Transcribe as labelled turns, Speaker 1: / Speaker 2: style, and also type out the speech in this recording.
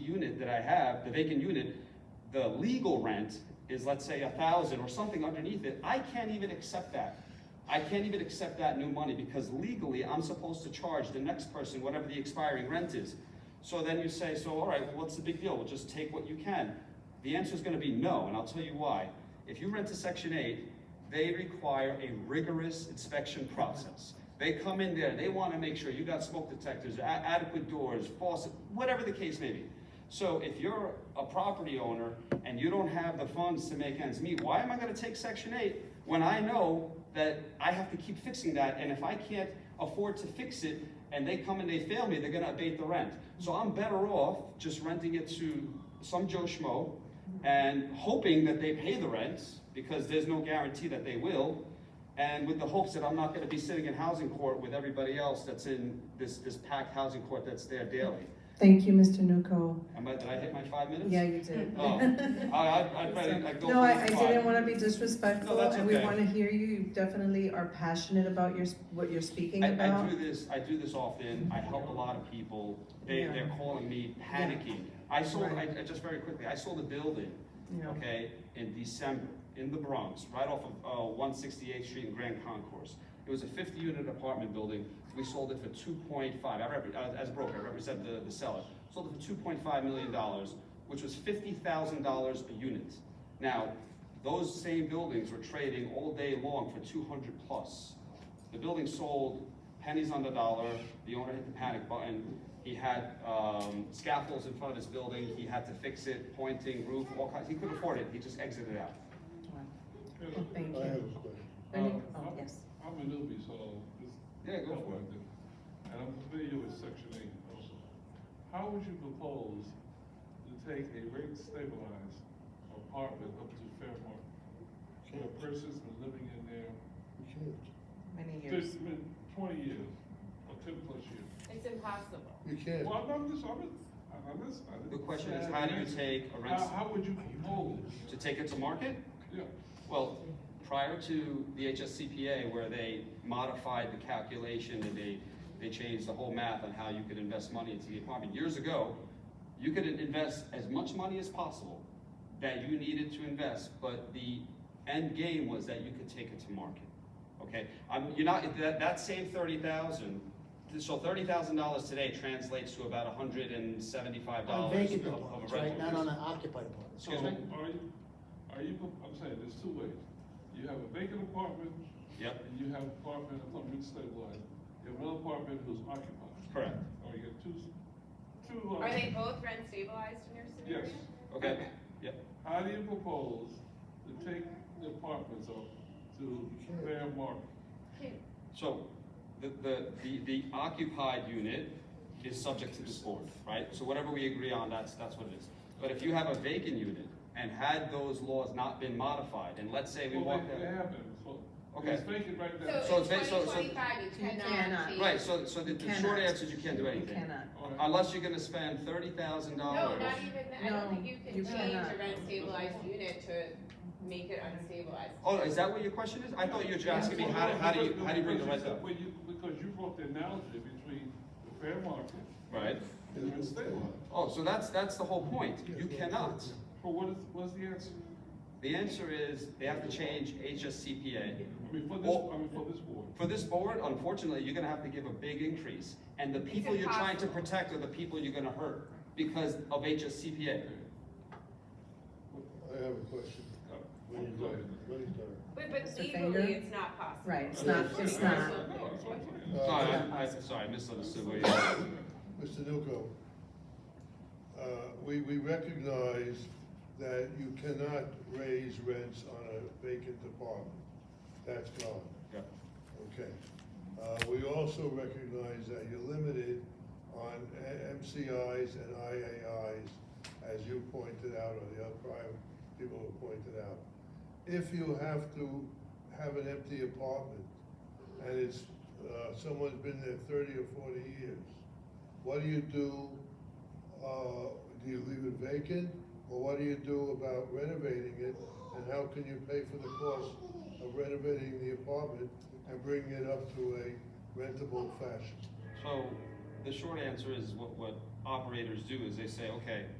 Speaker 1: unit that I have, the vacant unit, the legal rent is, let's say, a thousand or something underneath it, I can't even accept that. I can't even accept that new money because legally, I'm supposed to charge the next person whatever the expiring rent is. So then you say, so all right, what's the big deal? We'll just take what you can. The answer is gonna be no, and I'll tell you why. If you rent to section eight, they require a rigorous inspection process. They come in there, they wanna make sure you got smoke detectors, a- adequate doors, faucet, whatever the case may be. So if you're a property owner and you don't have the funds to make ends meet, why am I gonna take section eight when I know that I have to keep fixing that, and if I can't afford to fix it, and they come and they fail me, they're gonna abate the rent. So I'm better off just renting it to some Joe Schmo and hoping that they pay the rent, because there's no guarantee that they will, and with the hopes that I'm not gonna be sitting in housing court with everybody else that's in this, this packed housing court that's there daily.
Speaker 2: Thank you, Mr. Nuko.
Speaker 1: Am I, did I hit my five minutes?
Speaker 2: Yeah, you did.
Speaker 1: Oh, I, I, I'd rather, I'd go.
Speaker 2: No, I, I
Speaker 1: for five.
Speaker 2: didn't wanna be disrespectful,
Speaker 1: No, that's
Speaker 2: and we
Speaker 1: okay.
Speaker 2: wanna hear you, you definitely are passionate about your, s- what you're speaking
Speaker 1: I, I
Speaker 2: about.
Speaker 1: do this, I do this often, I help a lot of people, they,
Speaker 2: Yeah.
Speaker 1: they're calling me panicking. I sold, I, I just very quickly, I sold a building,
Speaker 2: Yeah.
Speaker 1: okay, in December, in the Bronx, right off of, uh, one sixty-eighth Street in Grand Concourse. It was a fifty-unit apartment building, we sold it for two point five, I rep, uh, as a broker, I represent the, the seller. Sold it for two point five million dollars, which was fifty thousand dollars a unit. Now, those same buildings were trading all day long for two hundred plus. The building sold pennies on the dollar, the owner hit the panic button, he had, um, scaffolds in front of his building, he had to fix it, pointing, roof, all kinds, he couldn't afford it, he just exited out.
Speaker 2: Oh, Thank
Speaker 3: I have
Speaker 2: you.
Speaker 3: a question.
Speaker 2: Any-
Speaker 4: Um,
Speaker 2: oh,
Speaker 4: I'm-
Speaker 2: yes.
Speaker 4: I'm a newbie, so this.
Speaker 1: Yeah, go for it.
Speaker 4: And I'm familiar with section eight also. How would you propose to take a rate stabilized apartment up to fair market? Where a person's been living in there
Speaker 3: You can't,
Speaker 2: Many years.
Speaker 4: fifteen, min- twenty years, or ten plus years.
Speaker 5: It's impossible.
Speaker 3: you can't.
Speaker 4: Well, I'm just, I'm, I'm just. I didn't
Speaker 1: The question
Speaker 4: say
Speaker 1: is,
Speaker 4: I
Speaker 1: how do you
Speaker 4: didn't answer.
Speaker 1: take a rent,
Speaker 4: How, how would you propose?
Speaker 1: to take it to market?
Speaker 4: Yeah,
Speaker 1: Well, prior to the HSCPA, where they modified the calculation and they, they changed the whole math on how you could invest money into the apartment, years ago, you could invest as much money as possible that you needed to invest, but the end game was that you could take it to market. Okay, um, you're not, that, that same thirty thousand, so thirty thousand dollars today translates to about hundred and seventy-five
Speaker 6: On
Speaker 1: dollars of, of
Speaker 6: vacant
Speaker 1: a
Speaker 6: apartments,
Speaker 1: rental.
Speaker 6: right, not on an occupied apartment.
Speaker 4: so
Speaker 1: Excuse me?
Speaker 4: are you, are you, pro- I'm saying, there's two ways. You have a vacant apartment,
Speaker 1: Yep,
Speaker 4: And you have apartment, apartment stabilized, you have one apartment who's occupied,
Speaker 1: correct,
Speaker 4: or you have two, two. uh,
Speaker 5: Are they both rent stabilized in your scenario?
Speaker 4: Yes.
Speaker 1: okay, yep.
Speaker 4: How do you propose to take the apartments up to fair market?
Speaker 5: Can-
Speaker 1: So, the, the, the, the occupied unit is subject to this board, right? So whatever we agree on, that's, that's what it is. But if you have a vacant unit, and had those laws not been modified, and let's say we
Speaker 4: Well,
Speaker 1: walk
Speaker 4: they, they
Speaker 1: that.
Speaker 4: haven't, so,
Speaker 1: Okay.
Speaker 4: it's vacant right now.
Speaker 1: So
Speaker 5: So in
Speaker 1: it's ba- so- so-
Speaker 5: twenty twenty-five, you
Speaker 2: You cannot.
Speaker 5: cannot change.
Speaker 1: Right, so, so the, the short
Speaker 2: Cannot.
Speaker 1: answer is you can't do
Speaker 2: You
Speaker 1: anything.
Speaker 2: cannot.
Speaker 4: All right.
Speaker 1: Unless you're gonna spend thirty thousand
Speaker 5: No,
Speaker 1: dollars.
Speaker 5: not even, that. I
Speaker 2: No,
Speaker 5: don't think
Speaker 2: you
Speaker 5: you can change
Speaker 2: cannot.
Speaker 5: a rent stabilized unit to make it unstabilized.
Speaker 1: Oh, is that what your question is? I thought you were just asking me, how, do- how do you, how do you bring the rent up?
Speaker 4: Well, you, because you brought the analogy between the fair market
Speaker 1: Right?
Speaker 4: and the stabilized,
Speaker 1: Oh, so that's, that's the whole point. You cannot.
Speaker 4: but what is, what's the answer?
Speaker 1: The answer is, they have to change HSCPA.
Speaker 4: I mean, for this,
Speaker 1: Well-
Speaker 4: I mean, for this board.
Speaker 1: For this board, unfortunately, you're gonna have to give a big increase, and the people you're trying to
Speaker 5: impossible.
Speaker 1: protect are the people you're gonna hurt because of HSCPA.
Speaker 3: I have a question.
Speaker 4: Uh,
Speaker 3: When you
Speaker 4: go
Speaker 3: done,
Speaker 4: ahead.
Speaker 3: when you done.
Speaker 5: But, but
Speaker 2: Mr. Finger?
Speaker 5: legally, it's not possible.
Speaker 2: Right, it's not, it's not.
Speaker 4: No, it's not.
Speaker 1: No,
Speaker 3: Uh,
Speaker 1: I, I, sorry, I misunderstood what you said.
Speaker 3: Mr. Nuko, uh, we, we recognize that you cannot raise rents on a vacant apartment. That's gone.
Speaker 1: Yeah.
Speaker 3: Okay. Uh, we also recognize that you're limited on A- MCIs and IAIs, as you pointed out, or the other prior people have pointed out. If you have to have an empty apartment, and it's, uh, someone's been there thirty or forty years, what do you do? Uh, do you leave it vacant, or what do you do about renovating it? And how can you pay for the cost of renovating the apartment and bringing it up to a rentable fashion?
Speaker 1: So, the short answer is what, what operators do is they say, okay,